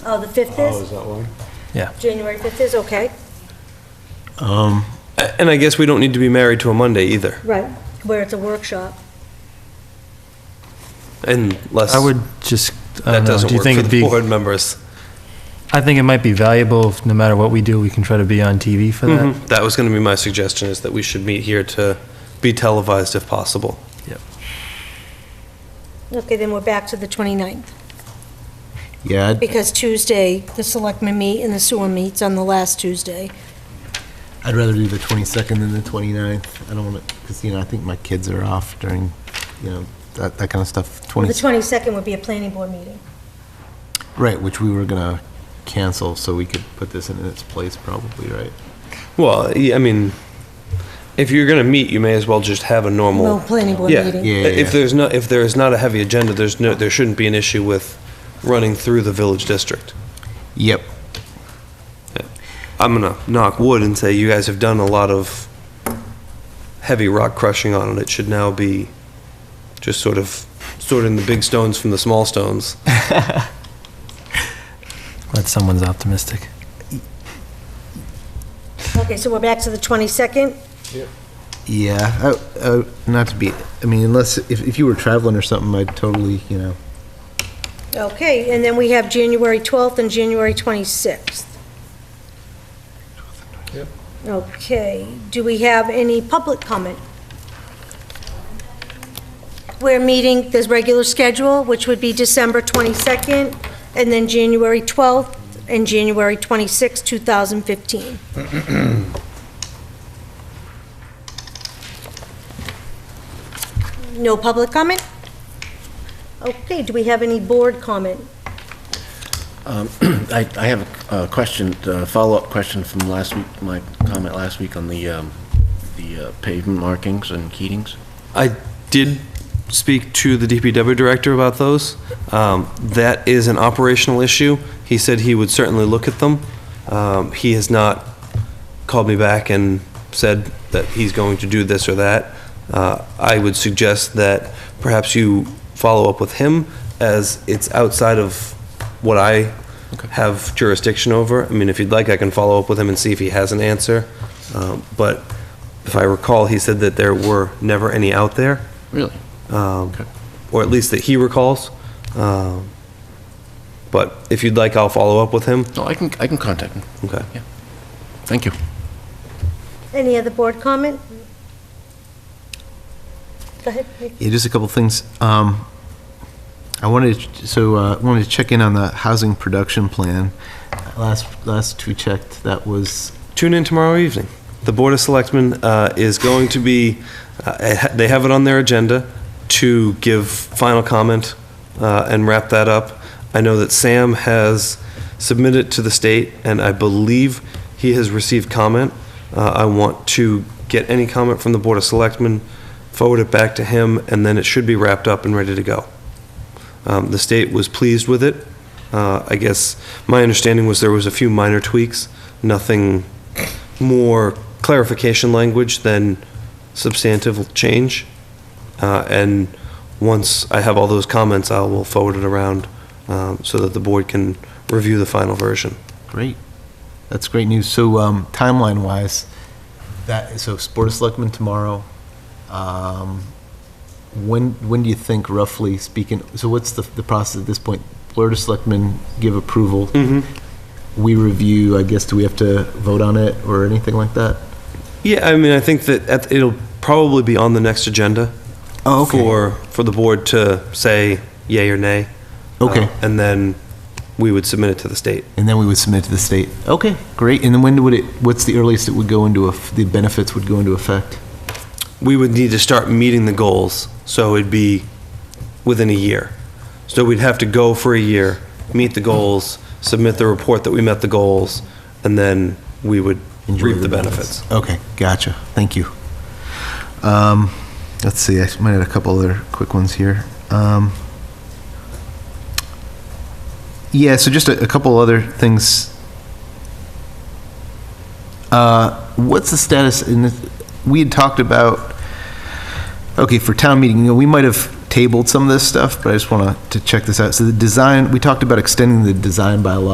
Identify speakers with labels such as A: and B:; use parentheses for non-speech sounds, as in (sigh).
A: Oh, the 5th
B: Oh,
A: is?
B: is that one?
A: January 5th is, okay.
B: Um, and I guess we don't need to be married to a Monday either,
A: Right. Where it's a workshop.
B: unless
C: I would just, I
B: that
C: don't know,
B: doesn't
C: do you
B: work
C: think
B: for
C: it'd
B: the
C: be,
B: board members.
C: I think it might be valuable, if no matter what we do, we can try to be on TV for that.
B: Mhm. That was going to be my suggestion, is that we should meet here to be televised if possible.
A: Okay, then we're back to the 29th,
D: Yeah, I'd-
A: because Tuesday, the selectmen meet and the sewer meets on the last Tuesday.
D: I'd rather do the 22nd than the 29th. I don't want to, because, you know, I think my kids are off during, you know, that, that kind of stuff.
A: Well, The
D: 20,
A: 22nd would be a planning board meeting.
D: right, which we were going to cancel, so we could put this in its place probably, right?
B: Well, yeah, I mean, if you're going to meet, you may as well just have a normal.
A: No, Oh, planning board
B: Yeah.
A: meeting.
D: Yeah, yeah,
B: If
D: yeah.
B: there's not, if there is not a heavy agenda, there's no, there shouldn't be an issue with running through the village district.
D: Yep.
B: I'm gonna knock wood and say you guys have done a lot of heavy rock crushing on it. It should now be just sort of sorting the big stones from the small stones.
C: That someone's optimistic.
A: Okay, so we're back to the 22nd?
D: Yeah, I- I- not to be, I mean, unless, if, if you were traveling or something, I'd totally, you know,
A: Okay, and then we have January 12th and January 26th. Okay, do we have any public comment? We're meeting the regular schedule, which would be December 22nd, and then January 12th and January 26th, 2015. (clears throat) No public comment? Okay, do we have any board comment?
E: I, I have a question, a follow-up question from last week, my comment last week on the, um, the uh, pavement markings and keatings.
B: I did speak to the DPW director about those. Um, That is an operational issue. He said he would certainly look at them. Um, He has not called me back and said that he's going to do this or that. Uh, I would suggest that perhaps you follow up with him, as it's outside of what I have jurisdiction over. I mean, if you'd like, I can follow up with him and see if he has an answer. Um, But if I recall, he said that there were never any out there,
E: Really?
B: um,
E: Okay.
B: or at least that he recalls. Um, But if you'd like, I'll follow up with him.
E: No, I can, I can contact him.
B: Okay.
E: Thank you.
A: Any other board comment? Go ahead.
D: Yeah, just a couple things. Um, I wanted, to- so uh, I wanted to check in on the housing production plan. Last, last we checked, that was,
B: Tune in tomorrow evening. The Board of Selectmen uh, is going to be, uh, it ha- they have it on their agenda to give final comment uh, and wrap that up. I know that Sam has submitted to the state, and I believe he has received comment. Uh, I want to get any comment from the Board of Selectmen, forward it back to him, and then it should be wrapped up and ready to go. Um, The state was pleased with it. Uh, I guess, my understanding was there was a few minor tweaks, nothing more clarification language than substantive change. Uh, And once I have all those comments, I will forward it around um, so that the board can review the final version.
D: great. That's great news. So um, timeline-wise, that, so Board of Selectmen tomorrow. Um, When, when do you think roughly speaking, so what's the, the process at this point? Board of Selectmen give approval. We review, I guess, do we have to vote on it or anything like that?
B: Yeah, I mean, I think that at- it'll probably be on the next agenda.
D: Oh, okay.
B: For, for the board to say yay or nay.
D: Okay.
B: Uh, And then we would submit it to the state.
D: And then we would submit to the state. Okay, great. And then when would it, what's the earliest it would go into, eff- the benefits would go into effect?
B: we would need to start meeting the goals, so it'd be within a year. So we'd have to go for a year, meet the goals, submit the report that we met the goals, and then we would
D: Enjoy
B: reap the benefits.
D: Okay, gotcha. Thank you. Um, Let's see, I might have a couple other quick ones here. Um, Yeah, so just a a couple other things. Uh, What's the status in, this- we had talked about, okay, for town meeting, you know, we might have tabled some of this stuff, but I just want to check this out. So the design, we talked about extending the design bylaw